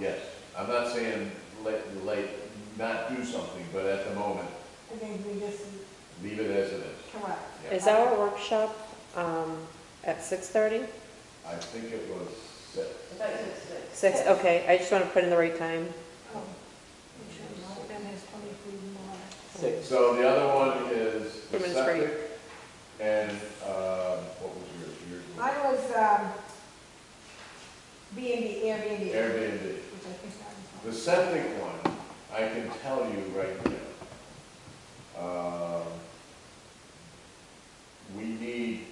Yes, I'm not saying let, let, not do something, but at the moment, I think we just, leave it as it is. correct. Yeah. Is our workshop um, at 6:30? I think it was six. I thought you said six. 6, okay, I just want to put in the right time. Oh, we should mark them as twenty-three more. Six. So the other one is the Two minutes for you. septic and, um, what was yours? Yours was Mine was, um, B and B, Airbnb. Airbnb. Which I think that The was. septic one, I can tell you right now. Um, We need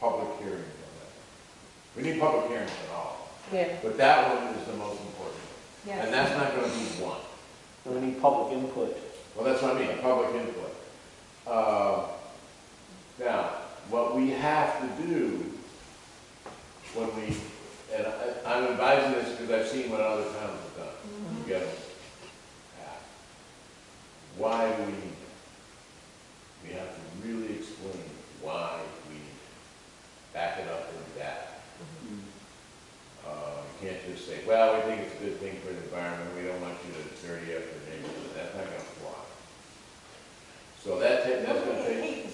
public hearings on that. We need public hearings on all, Yeah. but that one is the most important. And Yes. that's not gonna be one. We need public input. Well, that's what I mean, public input. Uh, Now, what we have to do when we, and I- I'm advising this because I've seen what other towns have done, you get it? Yeah. Why do we need it? We have to really explain why we need it. Back it up with that. Uh, You can't just say, well, we think it's a good thing for the environment, we don't want you to dirty up your neighborhood, that's not gonna fly. So that, ta- that's gonna take,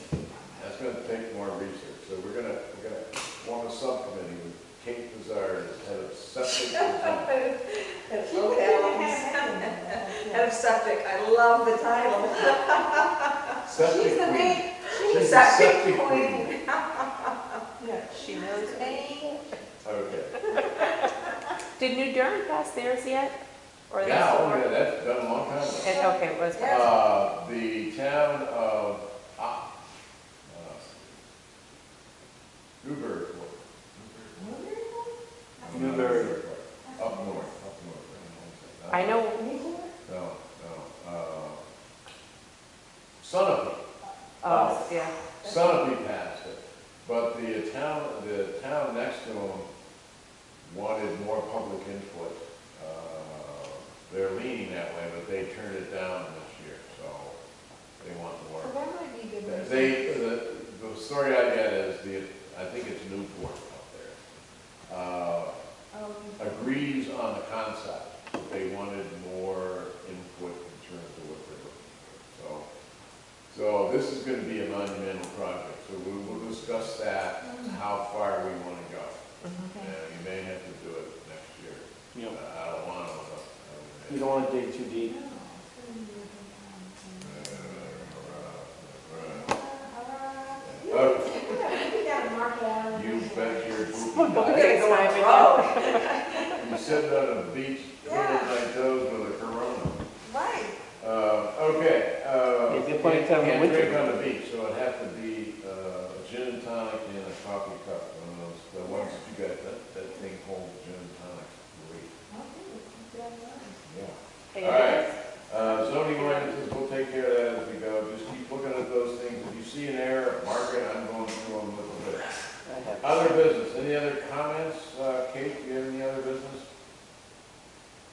that's gonna take more research, so we're gonna, we're gonna form a subcommittee with Kate Bizarre as head of septic. design. That's locales. Head of septic, I love the title. She's Septic the queen. main, She's the she's, Septic yeah, She knows me. Okay, Did New Durham pass theirs yet? Or yeah, that's- oh yeah, that's been a long time ago. And- Okay, it was, Yeah. Uh, the town of, ah, uh, Newburgh, Newburgh. Up north, up north. I know, No, no, uh, Sunapee, oh, yeah. Sunapee passed it, but the town, the town next to them wanted more public input. Uh, They're leaning that way, but they turned it down this year, so they want more. so that might be good. research. They, the, the story I get is the, I think it's Newport up there, uh, Um, agrees on the concept, but they wanted more input in terms of what they're looking for. So, so this is gonna be a monumental project, so we will discuss that, how far we wanna go. And okay. you may have to do it next year. You know, I I don't wanna, but. uh, I you mean, don't want to dig too deep. No, it's gonna be a uh, good, um, uh, uh, uh, Yeah, we gotta mark it out. You bet your We're poopy gonna go on the road. You sit on a beach, twiddling my toes with a Corona. Right. Uh, okay, uh. Yeah, they're playing kind of a can't winter drink on the beach, so it'd have to be, uh, a gin and tonic and a coffee cup, one of those, the ones that you got, that, that thing called gin and tonic, great, yeah. All right. Uh, zoning ordinances, we'll take care of that as we go, just keep looking at those things, if you see an error, mark it, I'm going through them with a bit. I have- Other business, any other comments, uh, Kate, do you have any other business?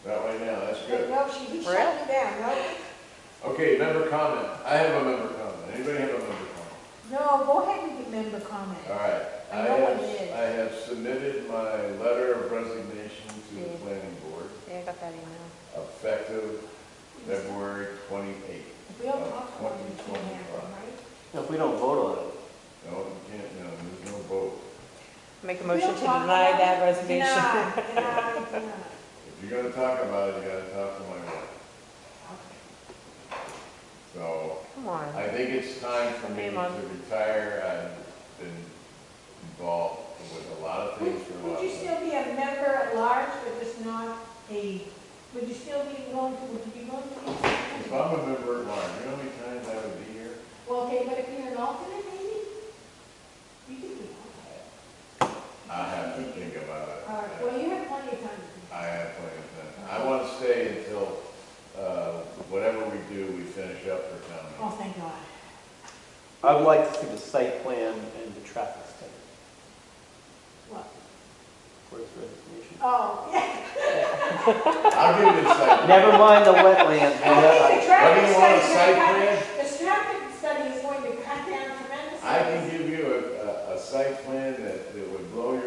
Not right now, that's good. No, she, he shut me down, no, Okay, member comment. I have a member comment. Anybody have a member comment? no, go ahead and remember comment. All right. I know have- what it is. I have submitted my letter of resignation to the planning board Yeah, I got that email. effective February twenty-eighth. We don't talk about it, we can't have them, right? If we don't vote on it, No, you can't, no, there's no vote. Make a We motion don't to talk deny about that it. resignation. Deny, deny, deny. If you're gonna talk about it, you gotta talk to my wife. So Come on. I think it's time for me Hey, Mom. to retire. I've been involved with a lot of Would, things for a would lot you of still be a member at large, but just not a, would you still be going, to- would you be going If to? I'm a member at large, you know how many times I would be here? Well, okay, but if you're an alternate, maybe? You could be an alternate. I have to think about it. All right, well, you have plenty of time to I have plenty of time. I want to stay until, uh, whatever we do, we finish up for town do. meeting. Oh, thank God. I would like to see the site plan and the traffic study. What? Where's resignation? Oh, yeah. I'll give you the site. plan. Never mind the wetlands. I think the What do traffic you want, a site study, plan? the traffic study is going to cut down tremendously. I can give you a, a, a site plan that, that would blow your